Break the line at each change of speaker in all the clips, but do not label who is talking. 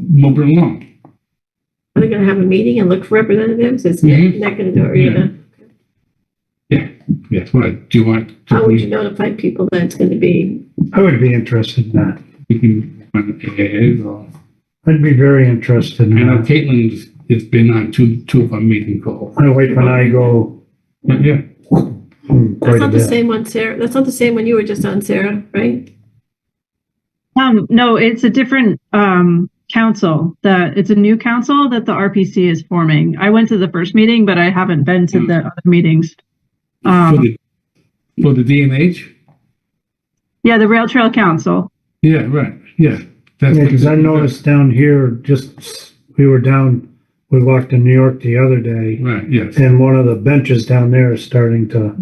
moving along.
Are they gonna have a meeting and look for representatives? Is
Mm-hmm.
Mhm.
not gonna do it, or you
Yeah.
know?
Yes, what, do you want? to-
How would you notify people that it's gonna be?
I would be interested in that.
You can, run the AAs or-
I'd be very interested
I
in
know
that.
Caitlin's, has been on two, two of our meeting calls.
My wife and I go
Yeah,
hmm,
That's
quite a
not the
bit.
same one, Sarah. That's not the same one you were just on, Sarah, right?
Um, no, it's a different, um, council that, it's a new council that the RPC is forming. I went to the first meeting, but I haven't been to the other meetings.
for
Um,
the, for the DNH?
yeah, the Rail Trail Council.
Yeah, right, yeah. That's
Yeah, because I
what-
noticed down here, just, we were down, we walked in New York the other day,
Right, yes,
and one of the benches down there is starting to,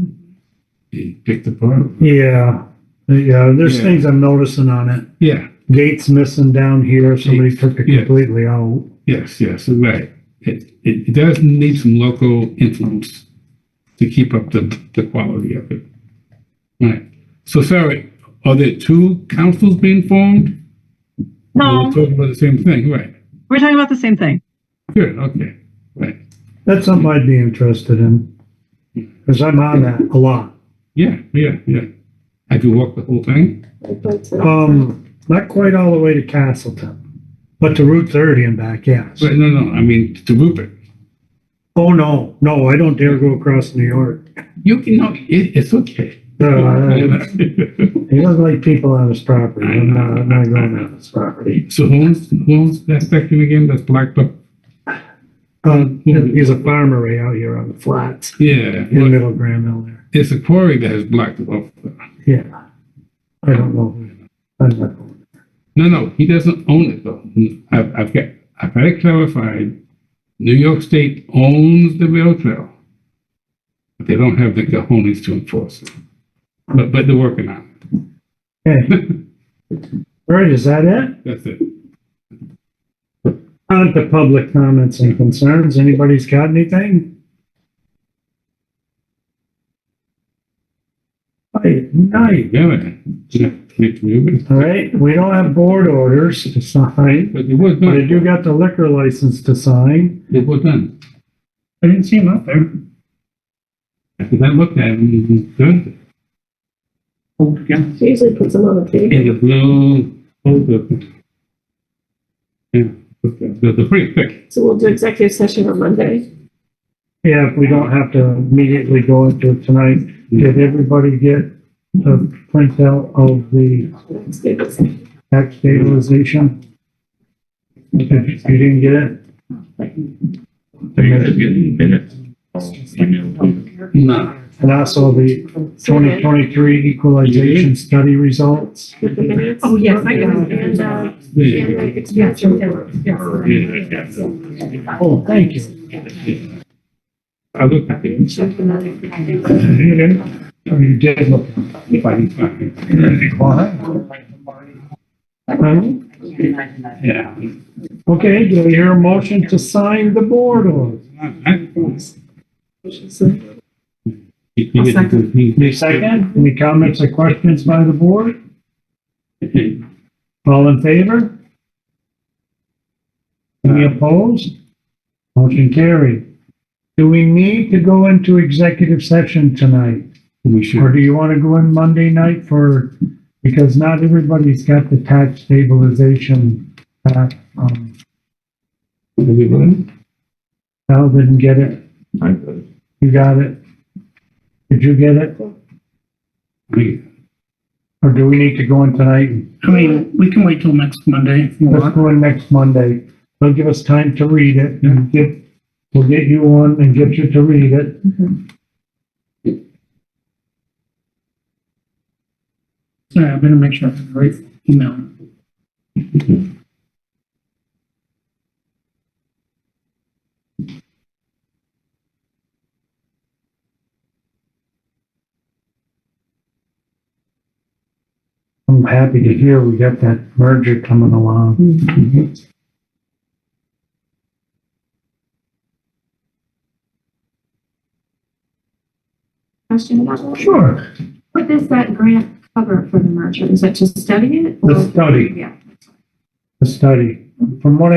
he picked apart.
yeah. Yeah, there's
Yeah.
things I'm noticing on it.
Yeah,
Gates missing down here, somebody took it
Yeah.
completely out.
yes, yes, right. It, it, it does need some local influence to keep up the, the quality of it. Right, so Sarah, are there two councils being formed? We're
No,
talking about the same thing, right,
we're talking about the same thing.
good, okay, right,
That's something I'd be interested in, because I'm on that a lot.
yeah, yeah, yeah. Have you walked the whole thing?
Like, that's a-
Um, not quite all the way to Castleton, but to Route thirty and back, yes.
Right, no, no, I mean, to Rupert.
Oh, no, no, I don't dare go across New York.
You can, no, it, it's okay.
No, I- He doesn't like people on his property, I'm not, I'm not going on his property.
So who owns, who owns that section again, that's Blacktop?
Um, he's a farmer right out here on the flats,
Yeah,
in
well,
Middle Graham Hill there,
it's a quarry that has blocked it off.
yeah. I don't know. I'm not going.
No, no, he doesn't own it though. I've, I've got, I've had it clarified. New York State owns the rail trail. But they don't have the cojones to enforce it. But, but they're working on
Okay,
it.
all right, is that it?
That's it.
On to public comments and concerns, anybody's got anything? Hi, night,
Very, yeah, keep moving.
all right, we don't have board orders to sign,
But it was
but I
done,
do got the liquor license to sign.
it was done.
I didn't see him up there.
Because I looked at it, it was good.
She usually puts them on the table.
In the blue, oh, the. Yeah, okay, the, the pretty thick.
So we'll do executive session on Monday.
Yeah, if we don't have to immediately go into it tonight, did everybody get the printout of the
Let's do this. All
tax stabilization? Okay, you didn't get it?
No.
And also the twenty twenty-three equalization study results?
With the minutes.
Oh, yes, I got it.
And, uh,
Yeah.
and the expense report.
Yes.
Oh, thank you.
I looked at it.
Check the minutes.
You didn't? Oh, you did look.
If I can find it.
Huh?
Yeah.
Um, Okay, do we hear a motion to sign the board order?
I'll second.
Any second, any comments or questions by the board? All in favor? Any opposed? Motion carried. Do we need to go into executive session tonight?
We
Or
should,
do you want to go in Monday night for, because not everybody's got the tax stabilization, uh, um,
we will.
Al didn't get it,
I could.
you got it? Did you get it?
We-
Or do we need to go in tonight?
I mean, we can wait till next Monday if you
Let's
want.
go in next Monday. They'll give us time to read it and get, we'll get you on and get you to read it.
Sorry, I better make sure I have the right email.
I'm happy to hear we got that merger coming along.
Question about that.
Sure.
What does that grant cover for the merger? Is that just studying it?
The
or-
study,
Yeah.
the study. from what